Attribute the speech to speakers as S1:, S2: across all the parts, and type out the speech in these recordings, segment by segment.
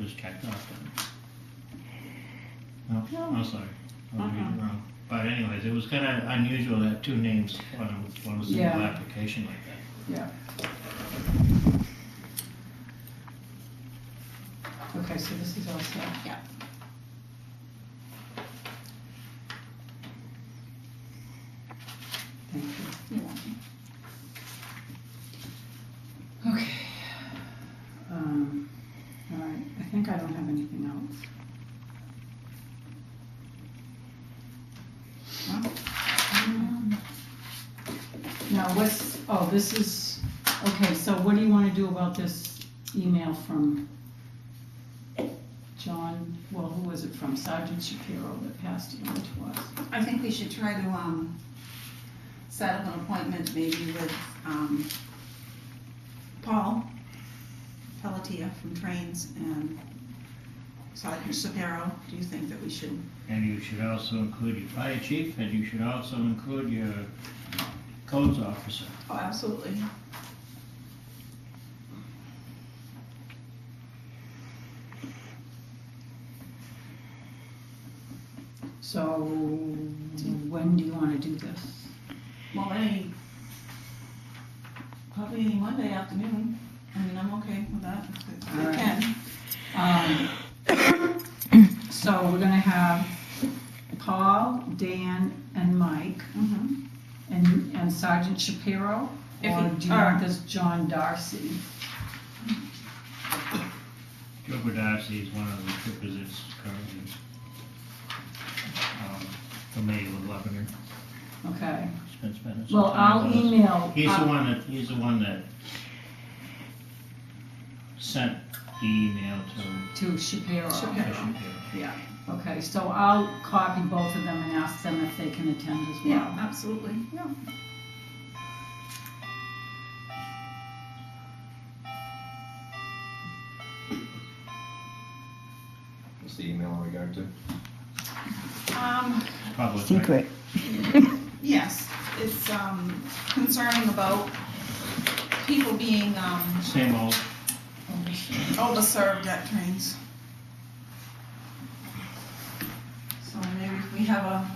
S1: just checked off them. No, I'm oh, sorry. I was reading wrong. But anyways, it was kind of unusual to have two names on a, on a single
S2: Yeah.
S1: application like that.
S2: Okay, so this is all set.
S3: Yeah.
S2: Thank you.
S3: You're welcome.
S2: Okay. Um, all right, I think I don't have anything else. Um, Now, what's, oh, this is, okay, so what do you wanna do about this email from John, well, who was it from, Sergeant Shapiro that passed it on to us?
S3: I think we should try to, um, set up an appointment maybe with, um, Paul Pelletier from Trains and Sergeant Shapiro. Do you think that we should?
S1: And you should also include your fire chief, and you should also include your codes officer.
S3: Oh, absolutely.
S2: So, when do you wanna do this?
S3: Well, any, probably any Monday afternoon. I mean, I'm okay with that. if
S2: All
S3: I
S2: right.
S3: can.
S2: Um, So we're gonna have Paul, Dan, and Mike,
S3: Mhm.
S2: and and Sergeant Shapiro,
S3: If
S2: or
S3: he-
S2: do you want this John Darcy?
S1: Joe Darcy is one of the troopers that's currently um, familiar with Lebanon,
S2: Okay,
S1: spent spent some
S2: well,
S1: time
S2: I'll
S1: with us.
S2: email,
S1: He's the
S2: I'll-
S1: one that, he's the one that sent the email to
S2: to Shapiro.
S3: Shapiro.
S1: Bishop
S2: Okay, so I'll copy both of them and ask them if they can attend as
S3: Yeah,
S2: well.
S3: absolutely. Yeah.
S4: What's the email in regard to?
S3: Um,
S1: Public record.
S5: Secret.
S3: Yes, it's um, concerning about people being um,
S1: Same old,
S3: Oh, overserved at trains. So maybe if we have a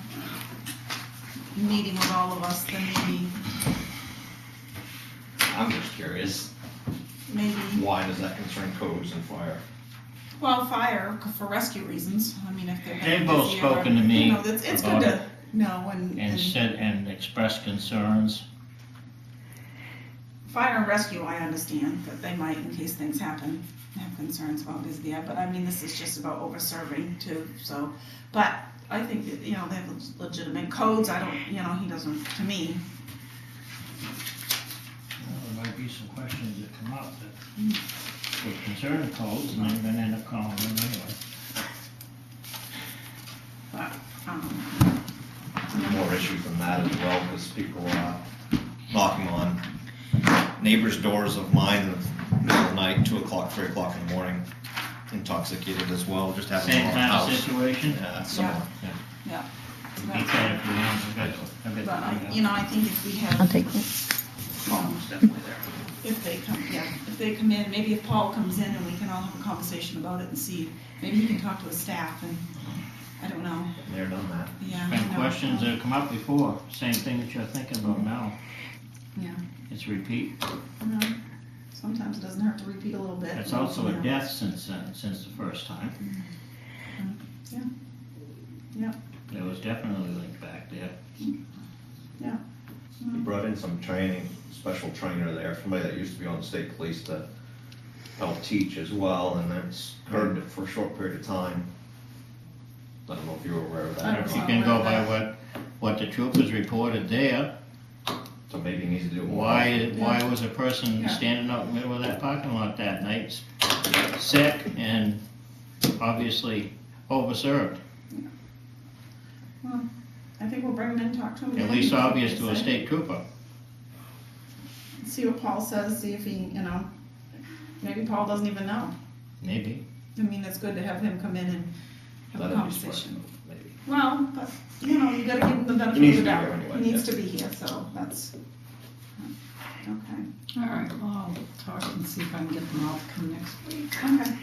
S3: meeting with all of us, then maybe,
S4: I'm just curious,
S3: maybe,
S4: why does that concern codes and fire?
S3: well, fire for rescue reasons. I mean, if they're.
S1: They've both
S3: busy or-
S1: spoken to me
S3: You know, it's, it's good
S1: about
S3: to know and,
S1: and
S3: and
S1: said, and expressed concerns.
S3: fire and rescue, I understand that they might, in case things happen, have concerns about this, yeah, but I mean, this is just about over-serving too, so. But I think that, you know, they have legitimate codes, I don't, you know, he doesn't, to me,
S1: Well, There might be some questions that come up that would concern codes, and I'm gonna end up calling them anyway.
S3: but, um,
S4: More issues than that as well, because people are knocking on neighbors' doors of mine in the middle of the night, two o'clock, three o'clock in the morning, intoxicated as well, just having
S1: Same
S4: a
S1: kind of
S4: house.
S1: situation.
S4: Yeah, similar, yeah.
S1: Be careful, you know, I've got, I've
S3: but
S1: got.
S3: I, you know, I think if we have.
S5: I'll take it.
S3: Paul's definitely there. If they come, yeah, if they come in, maybe if Paul comes in and we can all have a conversation about it and see, maybe he can talk to his staff and, I don't know,
S4: They're done that.
S3: yeah. I
S1: Been
S3: know.
S1: questions that have come up before, same thing that you're thinking about now.
S3: Yeah.
S1: It's repeat.
S3: No, Sometimes it doesn't hurt to repeat a little bit.
S1: It's also a
S3: Yeah.
S1: death since, uh, since the first time.
S3: Yeah. Yeah.
S1: There was definitely linked back there.
S4: We brought in some training, special trainer there, somebody that used to be on the state police to help teach as well, and that's curbed it for a short period of time. I don't know if you were aware of that.
S3: I
S4: or
S3: don't
S1: If you
S3: know.
S4: not.
S1: can go by what, what the troopers reported there,
S4: So maybe you need to do more.
S1: why, why was a person
S3: Yeah.
S1: standing out in the middle of that parking lot that night, sick and obviously overserved?
S3: I think we'll bring him in and talk to him.
S1: At
S3: again,
S1: least
S3: see what
S1: obvious
S3: they
S1: to a
S3: say.
S1: state trooper.
S3: See what Paul says, see if he, you know, maybe Paul doesn't even know.
S1: Maybe.
S3: I mean, it's good to have him come in and have a
S4: That'd be smart,
S3: conversation.
S4: maybe.
S3: Well, but, you know, you gotta give him the benefit
S4: needs
S3: of the
S4: to be
S3: doubt.
S4: here anyway,
S3: He needs to be here, so that's, okay,
S2: All right, well, I'll talk and see if I can get them all to come next week.
S3: okay.